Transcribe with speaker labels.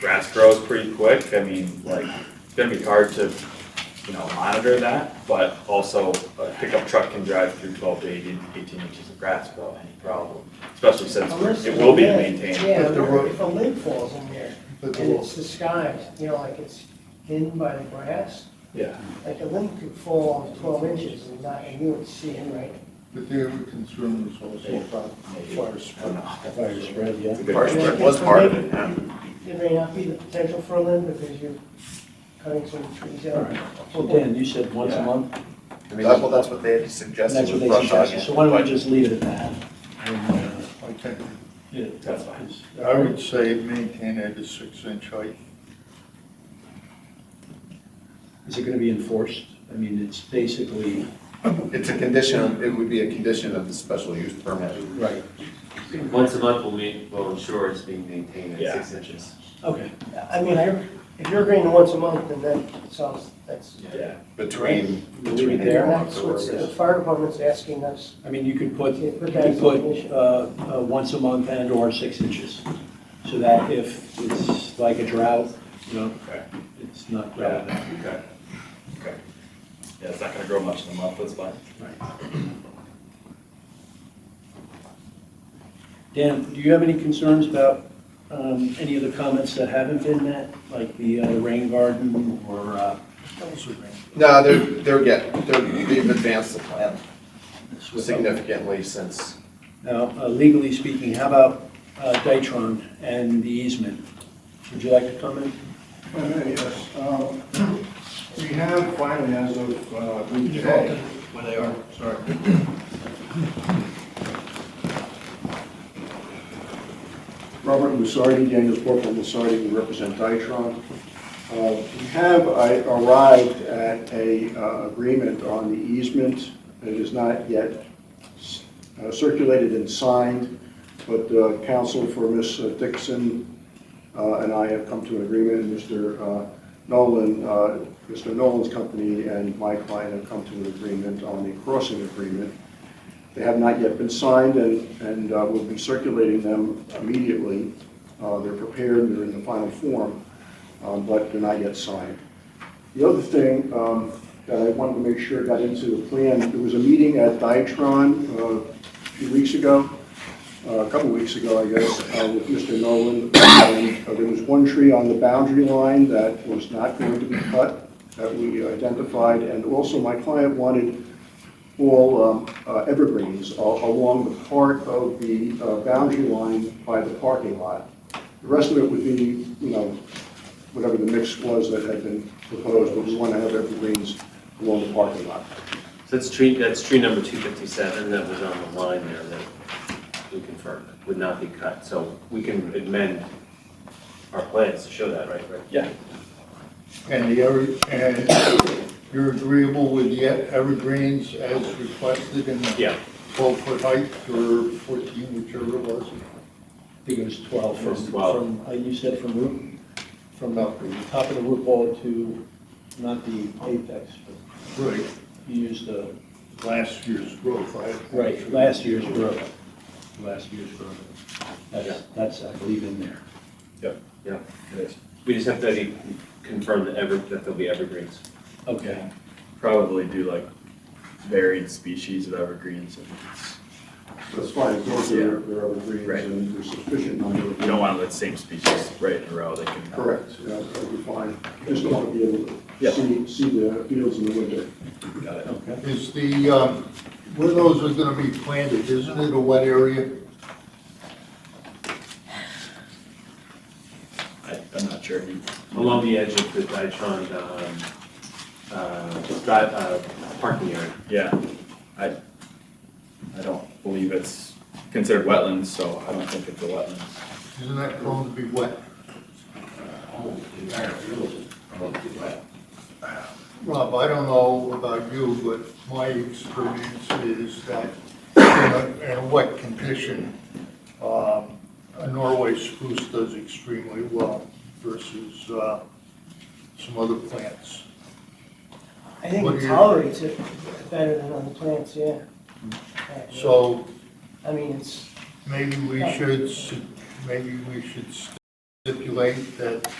Speaker 1: grass grows pretty quick, I mean, like, it's gonna be hard to, you know, monitor that, but also a pickup truck can drive through twelve to 18 18 inches of grass without any problem, especially since
Speaker 2: Unless
Speaker 1: it will be
Speaker 2: there's a lid.
Speaker 1: maintained.
Speaker 2: Yeah,
Speaker 3: But the road-
Speaker 2: if a lid falls in there,
Speaker 3: But
Speaker 2: and
Speaker 3: the
Speaker 2: it's
Speaker 3: rules,
Speaker 2: disguised, you know, like it's hidden by the grass,
Speaker 1: Yeah,
Speaker 2: like a lid could fall on twelve inches and not, and you would see it, right?
Speaker 3: the thing that would concern was also about fire
Speaker 1: I don't
Speaker 3: spread.
Speaker 1: know.
Speaker 4: Fire spread, yeah.
Speaker 1: It's a good
Speaker 5: Fire
Speaker 1: question.
Speaker 5: spread was part of it, yeah.
Speaker 2: There may not be the potential for a lid because you're cutting some trees out.
Speaker 4: So Dan, you said once a
Speaker 1: Yeah.
Speaker 4: month,
Speaker 5: I mean, that- well, that's what they had
Speaker 4: and
Speaker 5: suggested
Speaker 4: that's what
Speaker 5: with
Speaker 4: they
Speaker 5: brush
Speaker 4: suggested,
Speaker 5: hogging.
Speaker 4: so why don't
Speaker 5: but-
Speaker 4: we just leave it at that? And, uh,
Speaker 3: I think,
Speaker 4: yeah,
Speaker 1: That's fine.
Speaker 3: I would say maintain at a six inch height.
Speaker 4: Is it gonna be enforced? I mean, it's basically,
Speaker 5: It's a condition, it would be a condition of the special use permit.
Speaker 4: right,
Speaker 6: Once a month, we'll meet, we'll ensure it's being maintained
Speaker 1: Yeah.
Speaker 6: at six inches.
Speaker 4: okay.
Speaker 2: I mean, I, if you're agreeing to once a month, then that sounds, that's.
Speaker 1: Yeah,
Speaker 5: Between,
Speaker 4: We'll leave it
Speaker 2: And
Speaker 4: there.
Speaker 2: that's what the fire department's asking us.
Speaker 4: I mean, you could put,
Speaker 2: Yeah,
Speaker 4: you
Speaker 2: put that
Speaker 4: could
Speaker 2: as a
Speaker 4: put,
Speaker 2: condition.
Speaker 4: uh, uh, once a month and or six inches. So that if it's like a drought, you know,
Speaker 1: okay,
Speaker 4: it's not relevant.
Speaker 1: yeah, okay, okay. Yeah, it's not gonna grow much in a month, that's fine.
Speaker 4: Dan, do you have any concerns about um, any of the comments that haven't been met, like the uh, rain garden or, uh,
Speaker 5: no, they're, they're getting, they're, they've advanced the plan
Speaker 4: Now,
Speaker 5: significantly since,
Speaker 4: uh, legally speaking, how about uh, Dytron and the easement? Would you like to comment?
Speaker 7: Uh, Yes, um, we have finally, as of uh, week today. Where they are. Sorry. Robert Lusardi, Daniel Corporal Lusardi, we represent Dytron. Uh, We have I- arrived at a uh, agreement on the easement. It is not yet s- uh, circulated and signed, but uh, counsel for Ms. Dixon uh, and I have come to an agreement, and Mr. uh, Nolan, uh, Mr. Nolan's company and my client have come to an agreement on the crossing agreement. They have not yet been signed, and, and uh, we'll be circulating them immediately. Uh, They're prepared, they're in the final form, um, but they're not yet signed. The other thing um, that I wanted to make sure got into the plan, there was a meeting at Dytron uh, a few weeks ago, uh, a couple weeks ago, I guess, uh, with Mr. Nolan. And, uh, There was one tree on the boundary line that was not going to be cut, that we identified, and also my client wanted all um, uh, evergreens a- along the part of the uh, boundary line by the parking lot. The rest of it would be, you know, whatever the mix was that had been proposed, but we want to have evergreens along the parking lot.
Speaker 6: So that's tree, that's tree number two fifty-seven that was on the line there that we confirmed would not be cut. So we can amend our plans to show that, right, Rick?
Speaker 4: Yeah.
Speaker 3: And the, ever- and you're agreeable with the evergreens as requested in the
Speaker 6: Yeah.
Speaker 3: twelve foot height or fourteen, whichever it was,
Speaker 4: I think it was 12
Speaker 6: It was
Speaker 4: from,
Speaker 6: 12.
Speaker 4: from, uh, you said from roof,
Speaker 3: from Malcolm.
Speaker 4: top of the roof wall to, not the apex, but
Speaker 3: Right,
Speaker 4: you used the,
Speaker 3: last year's growth. I-
Speaker 4: right, last year's growth. Last year's growth. That's, that's, I believe, in there.
Speaker 6: Yeah. We just have to be- confirm that ever, that there'll be evergreens.
Speaker 4: Okay.
Speaker 1: Probably do like varied species of evergreens if it's
Speaker 7: That's fine, as long as they're they're evergreens
Speaker 1: Right.
Speaker 7: and there's sufficient number of
Speaker 1: You don't want to let the same species right in a row, they can.
Speaker 7: Correct, yeah, that'd be fine. Just don't want to be
Speaker 1: Yeah.
Speaker 7: able to see, see the fields in the winter.
Speaker 1: Got it.
Speaker 4: Okay.
Speaker 3: Is the, um, where those are gonna be planted, isn't it a wet area?
Speaker 1: I, I'm not sure.
Speaker 6: Along the edge of the Dytron, um, uh, drive, uh, parking area.
Speaker 1: Yeah, I, I don't believe it's considered wetlands, so I don't think it's a wetland.
Speaker 3: Isn't that prone to be wet? Rob, I don't know about you, but my experience is that in a- in a wet condition, um, a Norway spruce does extremely well versus uh, some other plants.
Speaker 2: I think
Speaker 3: What
Speaker 2: it
Speaker 3: do you-
Speaker 2: tolerates it better than other plants, yeah.
Speaker 1: Hmm.
Speaker 3: So
Speaker 2: I mean, it's,
Speaker 3: maybe we should, s- maybe we should late that